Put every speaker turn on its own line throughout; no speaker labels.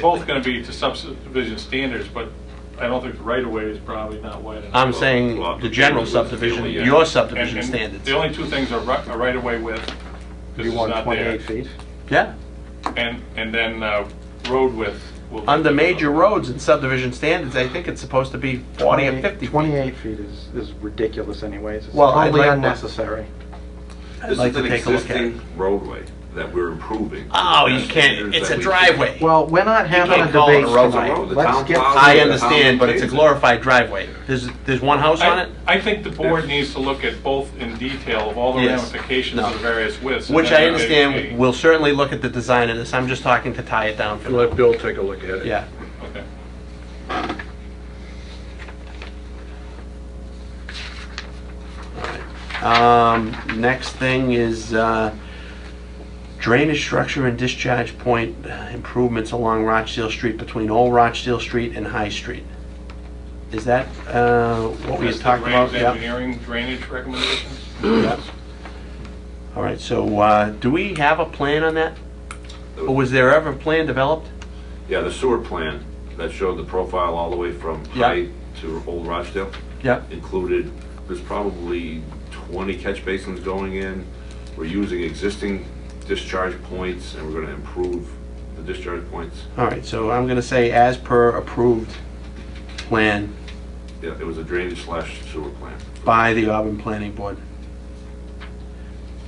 Both going to be to subdivision standards, but I don't think the right-of-way is probably not wide enough.
I'm saying the general subdivision, your
And-
subdivision
and
standards.
The only two things are ri- a right-of-way width, because
You
it's
want
not
28
there.
feet?
Yeah,
And, and then uh, road width. will be-
under major roads and subdivision standards, I think it's supposed to be 40 or
28
50 feet.
28 feet is, is ridiculous anyways. It's
Well, I'd
totally
like-
unnecessary.
I'd like to take a look at
This is an
it.
existing roadway that we're improving.
Oh, you
That's
can't,
standards
it's
that
a
we-
driveway.
Well, we're not having a
can't call it a
debate
roadway.
tonight.
The
Let's
town
get,
plows
I
it, the
understand,
town
but it's a
pays it.
glorified driveway. There's, there's one house on
I
it,
I think the board needs to look at both in detail of all the
Yes.
ramifications
No.
of the various widths. and
which
then
I
a-
understand,
a-
we'll certainly look at the design of this, I'm just talking to tie it down for now.
Let Bill take a look at it.
Yeah.
Okay.
Um, next thing is, uh, drainage structure and discharge point improvements along Rochdale Street between Old Rochdale Street and High Street. Is that, uh, what we had
That's the
talked about?
Graham's
Yeah.
engineering drainage recommendations?
All right, so, uh, do we have a plan on that? Or was there ever a plan developed?
Yeah, the sewer plan that showed the profile all the way from
Yeah.
High to Old Rochdale
Yeah.
included, there's probably 20 catch basins going in. We're using existing discharge points and we're going to improve the discharge points.
All right, so I'm gonna say as per approved plan
Yeah, it was a drainage slash sewer plan.
by the Auburn Planning Board.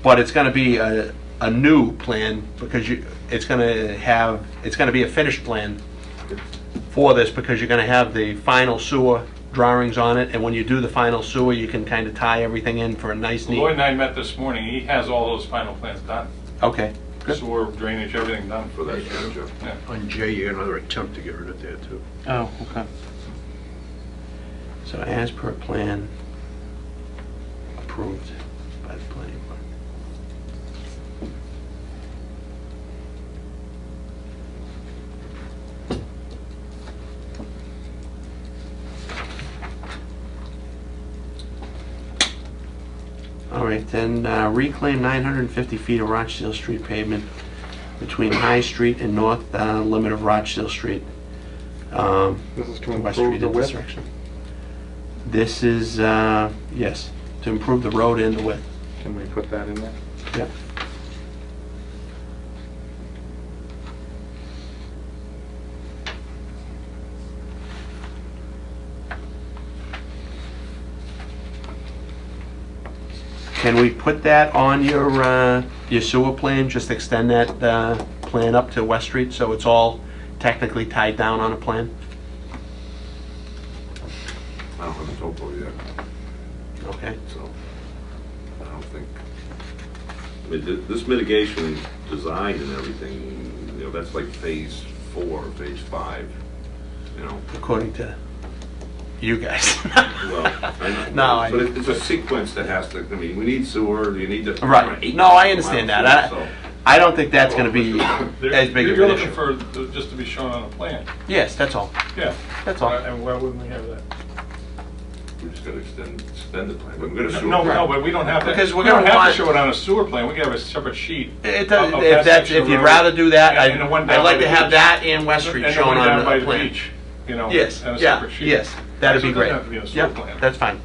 But it's gonna be a, a new plan, because you, it's gonna have, it's gonna be a finished plan for this, because you're gonna have the final sewer drawings on it, and when you do the final sewer, you can kinda tie everything in for a nice
Lloyd
neat.
and I met this morning, he has all those final plans done,
Okay, good.
sewer, drainage, everything done for
For that
that.
structure.
Yeah.
On J, you had another attempt to get rid of that too.
Oh, okay. So as per plan, approved by the planning board. All right, then uh, reclaim 950 feet of Rochdale Street pavement between High Street and north uh, limit of Rochdale Street. Um,
this is to
West
improve
Street
the width.
intersection. This is, uh, yes, to improve the road and the width.
Can we put that in there?
Yep. Can we put that on your, uh, your sewer plan, just extend that uh, plan up to West Street, so it's all technically tied down on a plan?
I don't have a topo yet,
Okay.
so I don't think. I mean, thi- this mitigation design and everything, you know, that's like phase four, phase five, you know.
according to you guys.
Well, I
No, I-
know, but it- it's a sequence that has to, I mean, we need sewer, you need to.
Right. No, I understand that. I-
So-
I don't think that's going to be as big of
You're
an
looking
issue.
for, the- just to be shown on a plan,
Yes, that's all.
yeah.
That's all.
Uh, And why wouldn't we have that?
We're just gonna extend, extend the plan, we're gonna sewer.
No, no, but we don't have that.
Because we're
We don't
gonna
have
want-
to show it on a sewer plan, we can have a separate sheet.
It
of-
does-
of that
If that's,
section
if you'd
of road.
rather do that,
And- and the one
I'd
down
I'd like
by
to
the
have
beach.
that and West Street
And the one
shown on
down by
the
the
plan.
beach, you know,
Yes,
and a
yeah,
separate sheet.
yes. That'd
So
be
it doesn't
great.
have to be on a sewer
Yep,
plan.
That's fine.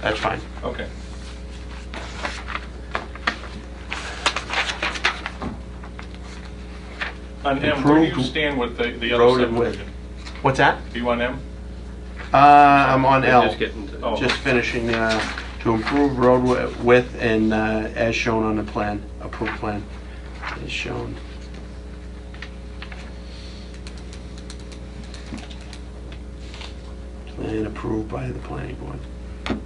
That's fine.
Okay. On M, where do you
Improved
stand with the, the
road
other
and width.
subdivision?
What's that?
Do you want M?
Uh, I'm on L.
Just getting to.
Oh.
Just finishing, uh, to improve road wi- width and, uh, as shown on the plan, approved plan, as shown. Plan approved by the planning board.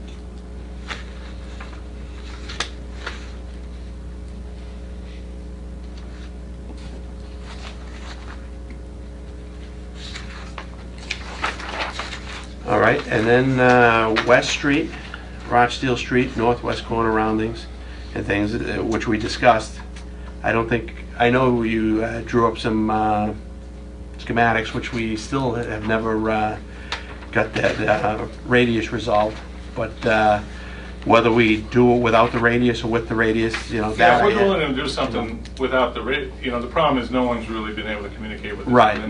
All right, and then uh, West Street, Rochdale Street, northwest corner roundings and things, uh, which we discussed. I don't think, I know you uh, drew up some uh, schematics, which we still have never uh, got that uh, radius resolved, but uh, whether we do it without the radius or with the radius, you know,
Yeah,
that...
we're willing to do something without the, ra- you know, the problem is no one's really been able to communicate with the
Right.